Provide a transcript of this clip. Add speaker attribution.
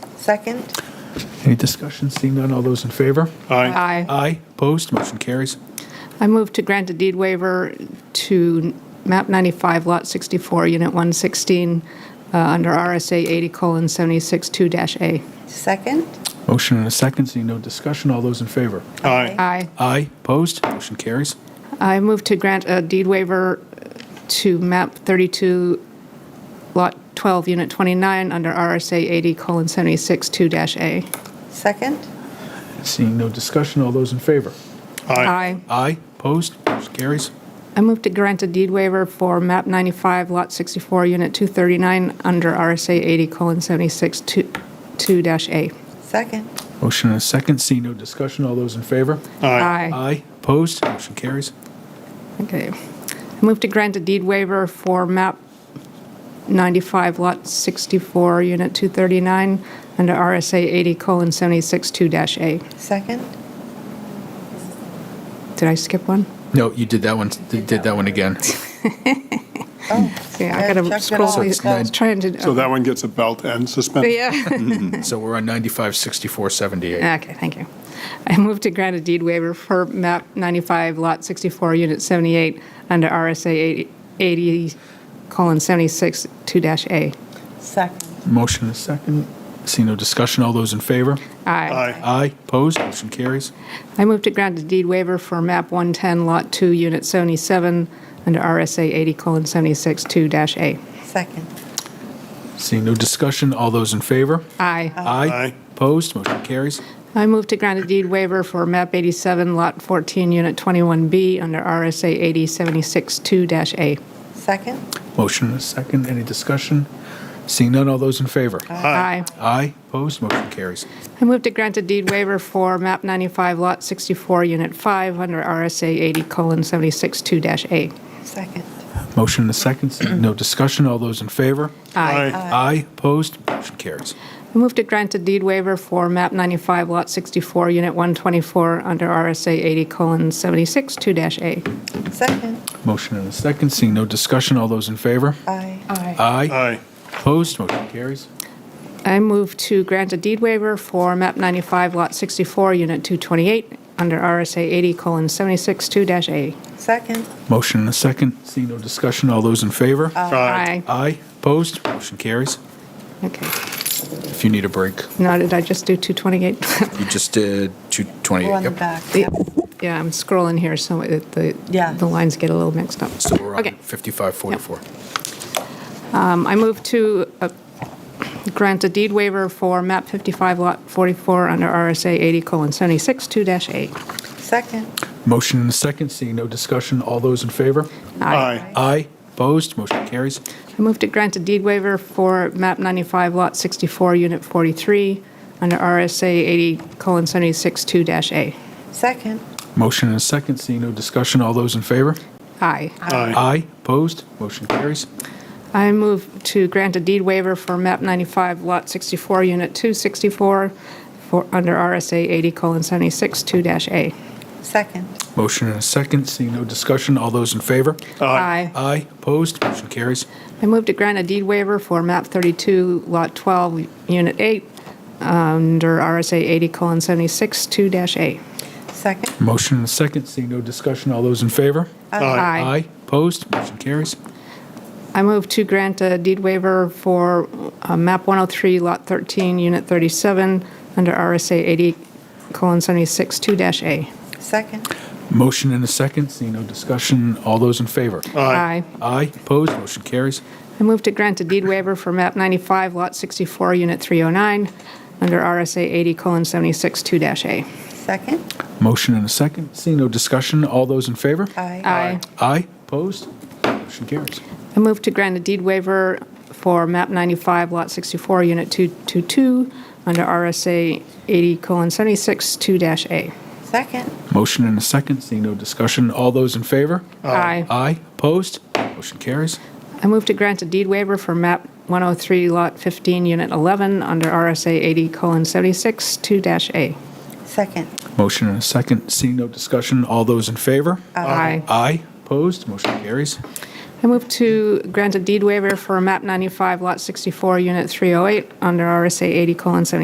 Speaker 1: Second?
Speaker 2: Any discussion? Seeing none, all those in favor?
Speaker 3: Aye.
Speaker 4: Aye.
Speaker 2: Aye. Opposed? Motion carries.
Speaker 4: I move to grant a deed waiver to map 95, lot 64, unit 116, uh, under RSA 80:762-A.
Speaker 1: Second?
Speaker 2: Motion and a second. Seeing no discussion, all those in favor?
Speaker 3: Aye.
Speaker 4: Aye.
Speaker 2: Aye. Opposed? Motion carries.
Speaker 4: I move to grant a deed waiver to map 32, lot 12, unit 29, under RSA 80:762-A.
Speaker 1: Second?
Speaker 2: Seeing no discussion, all those in favor?
Speaker 3: Aye.
Speaker 2: Aye. Opposed? Motion carries.
Speaker 4: I move to grant a deed waiver for map 95, lot 64, unit 239, under RSA 80:762-A.
Speaker 1: Second?
Speaker 2: Motion and a second. Seeing no discussion, all those in favor?
Speaker 3: Aye.
Speaker 2: Aye. Opposed? Motion carries.
Speaker 4: Okay. I move to grant a deed waiver for map 95, lot 64, unit 239, under RSA 80:762-A.
Speaker 1: Second?
Speaker 4: Did I skip one?
Speaker 2: No, you did that one, you did that one again.
Speaker 1: Oh,
Speaker 4: Yeah, I
Speaker 1: I've
Speaker 4: gotta
Speaker 1: checked it
Speaker 4: scroll.
Speaker 1: all.
Speaker 2: So it's
Speaker 4: I
Speaker 2: nine.
Speaker 4: was trying to. oh,
Speaker 3: So that one gets a belt and suspended.
Speaker 4: Yeah.
Speaker 2: So we're on 95, 64, 78.
Speaker 4: Okay, thank you. I move to grant a deed waiver for map 95, lot 64, unit 78, under RSA 80:762-A.
Speaker 1: Second?
Speaker 2: Motion and a second. Seeing no discussion, all those in favor?
Speaker 4: Aye.
Speaker 3: Aye.
Speaker 2: Aye. Opposed? Motion carries.
Speaker 4: I move to grant a deed waiver for map 110, lot 2, unit 77, under RSA 80:762-A.
Speaker 1: Second?
Speaker 2: Seeing no discussion, all those in favor?
Speaker 4: Aye.
Speaker 3: Aye.
Speaker 2: Opposed? Motion carries.
Speaker 4: I move to grant a deed waiver for map 87, lot 14, unit 21B, under RSA 80:762-A.
Speaker 1: Second?
Speaker 2: Motion and a second. Any discussion? Seeing none, all those in favor?
Speaker 4: Aye.
Speaker 2: Aye. Opposed? Motion carries.
Speaker 4: I move to grant a deed waiver for map 95, lot 64, unit 5, under RSA 80:762-A.
Speaker 1: Second?
Speaker 2: Motion and a second. Seeing no discussion, all those in favor?
Speaker 3: Aye.
Speaker 2: Aye. Opposed? Motion carries.
Speaker 4: I move to grant a deed waiver for map 95, lot 64, unit 124, under RSA 80:762-A.
Speaker 1: Second?
Speaker 2: Motion and a second. Seeing no discussion, all those in favor?
Speaker 1: Aye.
Speaker 2: Aye.
Speaker 3: Aye.
Speaker 2: Opposed? Motion carries.
Speaker 4: I move to grant a deed waiver for map 95, lot 64, unit 228, under RSA 80:762-A.
Speaker 1: Second?
Speaker 2: Motion and a second. Seeing no discussion, all those in favor?
Speaker 3: Aye.
Speaker 2: Aye. Opposed? Motion carries.
Speaker 4: Okay.
Speaker 2: If you need a break,
Speaker 4: Now, did I just do 228?
Speaker 2: you just did
Speaker 1: We're on
Speaker 2: 228.
Speaker 1: the
Speaker 2: Yep.
Speaker 1: back. Yeah.
Speaker 4: Yeah, I'm scrolling here, so it- the
Speaker 1: Yeah.
Speaker 4: the lines get a little mixed up.
Speaker 2: So we're on
Speaker 4: Okay.
Speaker 2: 5544.
Speaker 4: Um, I move to uh, grant a deed waiver for map 55, lot 44, under RSA 80:762-8.
Speaker 1: Second?
Speaker 2: Motion and a second, seeing no discussion, all those in favor?
Speaker 3: Aye.
Speaker 2: Aye. Opposed, motion carries.
Speaker 4: I move to grant a deed waiver for map 95, lot 64, unit 43, under RSA 80:762-A.
Speaker 1: Second?
Speaker 2: Motion and a second, seeing no discussion, all those in favor?
Speaker 4: Aye.
Speaker 3: Aye.
Speaker 2: Aye. Opposed, motion carries.
Speaker 4: I move to grant a deed waiver for map 95, lot 64, unit 264, for, under RSA 80:762-A.
Speaker 1: Second?
Speaker 2: Motion and a second, seeing no discussion, all those in favor?
Speaker 4: Aye.
Speaker 2: Aye. Opposed, motion carries.
Speaker 4: I move to grant a deed waiver for map 32, lot 12, unit 8, under RSA 80:762-A.
Speaker 1: Second?
Speaker 2: Motion and a second, seeing no discussion, all those in favor?
Speaker 3: Aye.
Speaker 4: Aye.
Speaker 2: Opposed, motion carries.
Speaker 4: I move to grant a deed waiver for uh, map 103, lot 13, unit 37, under RSA 80:762-A.
Speaker 1: Second?
Speaker 2: Motion and a second, seeing no discussion, all those in favor?
Speaker 4: Aye.
Speaker 2: Aye. Opposed, motion carries.
Speaker 4: I move to grant a deed waiver for map 95, lot 64, unit 309, under RSA 80:762-A.
Speaker 1: Second?
Speaker 2: Motion and a second. Seeing no discussion, all those in favor?
Speaker 1: Aye.
Speaker 4: Aye.
Speaker 2: Aye. Opposed? Motion carries.
Speaker 4: I move to grant a deed waiver for map 95, lot 64, unit 222, under RSA 80:762-A.
Speaker 1: Second?
Speaker 2: Motion and a second. Seeing no discussion, all those in favor?
Speaker 4: Aye.
Speaker 2: Aye. Opposed? Motion carries.
Speaker 4: I move to grant a deed waiver for map 103, lot 15, unit 11, under RSA 80:762-A.
Speaker 1: Second?
Speaker 2: Motion and a second. Seeing no discussion, all those in favor?
Speaker 4: Aye.
Speaker 2: Aye. Opposed? Motion carries.
Speaker 4: I move to oh grant a deed waiver for map 95, lot 64, unit 308, under RSA 80:762-A.